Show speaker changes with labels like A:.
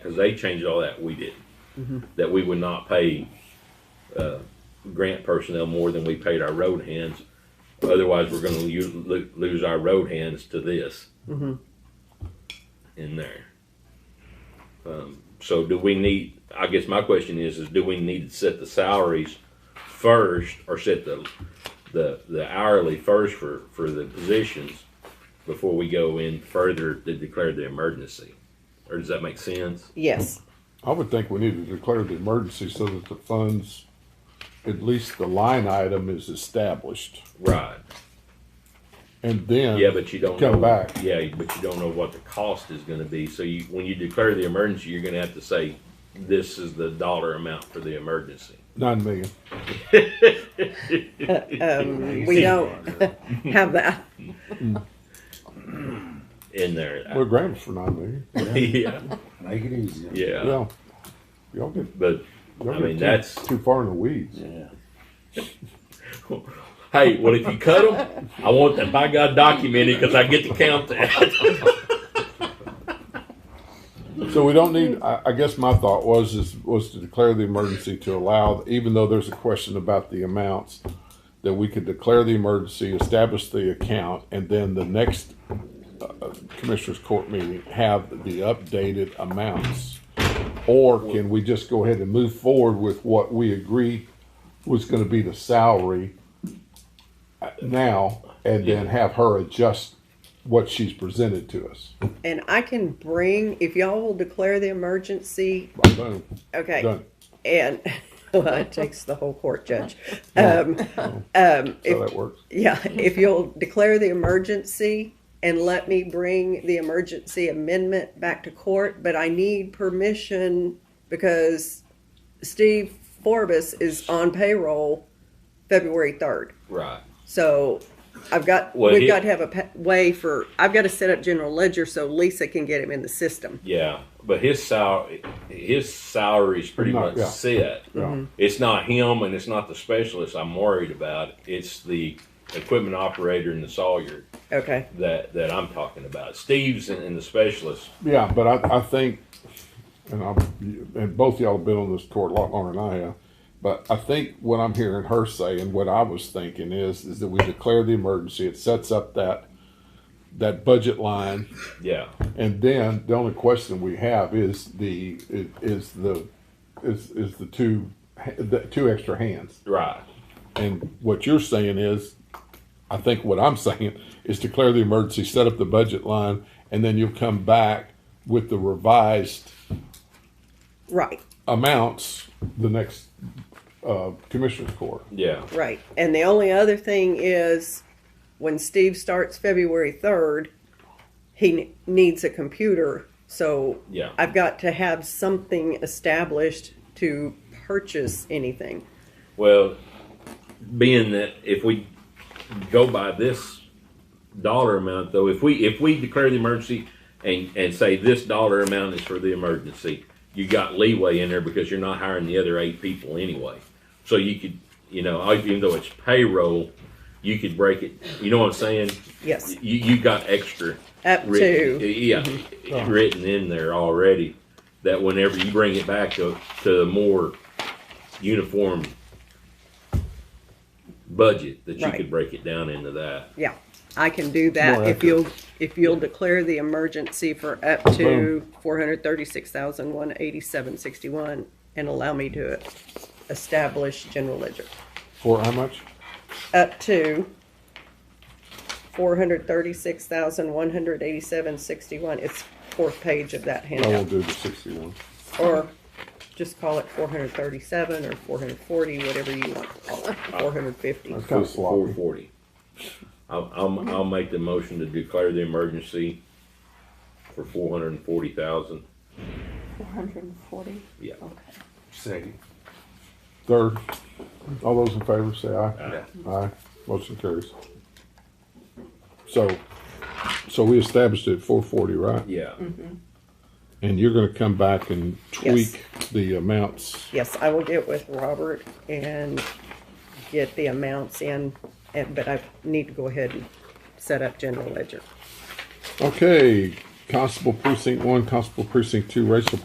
A: because they changed all that, we did. That we would not pay, uh, grant personnel more than we paid our road hands. Otherwise, we're gonna u- lo- lose our road hands to this. In there. Um, so do we need, I guess my question is, is do we need to set the salaries first or set the, the, the hourly first for, for the positions? Before we go in further to declare the emergency? Or does that make sense?
B: Yes.
C: I would think we need to declare the emergency so that the funds, at least the line item is established.
A: Right.
C: And then.
A: Yeah, but you don't
C: Come
A: know,
C: back.
A: Yeah, but you don't know what the cost is going to be. So you, when you declare the emergency, you're going to have to say, "This is the dollar amount for the emergency."
C: Nine million.
B: Um, we don't have that.
A: In there,
C: We're granted for nine million.
A: yeah,
D: Make it easy.
A: yeah.
C: Yeah. Y'all get,
A: But
C: y'all
A: I
C: get
A: mean,
C: too-
A: that's-
C: Too far in the weeds.
D: Yeah.
A: hey, well, if you cut them, I want that by God documented because I get to count that.
C: So we don't need, I, I guess my thought was, is, was to declare the emergency to allow, even though there's a question about the amounts, that we could declare the emergency, establish the account, and then the next uh, Commissioners Court meeting have the updated amounts. Or can we just go ahead and move forward with what we agree was gonna be the salary uh, now, and then have her adjust what she's presented to us?
B: And I can bring, if y'all will declare the emergency,
C: Boom,
B: okay.
C: done.
B: And, well, it takes the whole court judge. Um, um,
C: So
B: if,
C: that works.
B: yeah, if you'll declare the emergency and let me bring the emergency amendment back to court, but I need permission because Steve Forbes is on payroll February third.
A: right.
B: So I've got,
A: Well,
B: we've
A: he-
B: got to have a pa- way for, I've got to set up general ledger so Lisa can get him in the system.
A: Yeah, but his salary, his salary's pretty
C: No,
A: much
C: yeah.
A: set.
C: Mhm.
A: It's not him, and it's not the specialist. I'm worried about. It's the equipment operator and the sawyer.
B: Okay.
A: that that I'm talking about. Steve's and, and the specialist.
C: Yeah, but I, I think, and I, and both y'all have been on this court a lot longer than I have, but I think what I'm hearing her say and what I was thinking is, is that we declare the emergency, it sets up that, that budget line,
A: Yeah,
C: and then the only question we have is the, is, is the, is, is the two, the two extra hands.
A: right.
C: And what you're saying is, I think what I'm saying is declare the emergency, set up the budget line, and then you'll come back with the revised
B: Right,
C: amounts the next uh, commissioner's court.
A: Yeah,
B: right. And the only other thing is when Steve starts February 3rd, he ne- needs a computer. So
A: Yeah.
B: I've got to have something established to purchase anything.
A: Well, being that if we go by this dollar amount, though, if we if we declare the emergency and and say this dollar amount is for the emergency, you got leeway in there because you're not hiring the other eight people anyway. So you could, you know, even though it's payroll, you could break it. You know what I'm saying?
B: Yes.
A: You you got extra
B: Up
A: written,
B: to.
A: yeah, written in there already. That whenever you bring it back to to a more uniform budget, that you
B: Right.
A: could break it down into that.
B: Yeah, I can do that
C: More
B: if
C: accurate.
B: you'll, if you'll declare the emergency for up to four hundred thirty-six thousand, one eighty-seven, sixty-one and allow me to establish general ledger.
C: For how much?
B: Up to four hundred thirty-six thousand, one hundred eighty-seven, sixty-one. It's fourth page of that
C: I will
B: handout.
C: do the sixty-one.
B: Or just call it four hundred thirty-seven or four hundred forty, whatever you want to call it, four hundred fifty.
C: That's kind of
A: Four
C: sloppy.
A: forty. I'll, I'll, I'll make the motion to declare the emergency for four hundred and forty thousand.
E: 440?
A: Yeah.
E: Okay.
D: Second.
C: Third, all those in favor say aye.
D: Yeah.
C: Aye, motion carries. So, so we established it at four forty, right?
A: Yeah,
C: And you're gonna come back and
B: Yes.
C: tweak the amounts.
B: Yes, I will get with Robert and get the amounts in, and- but I need to go ahead and set up general ledger.
C: Okay, Constable Precinct One, Constable Precinct Two, Racial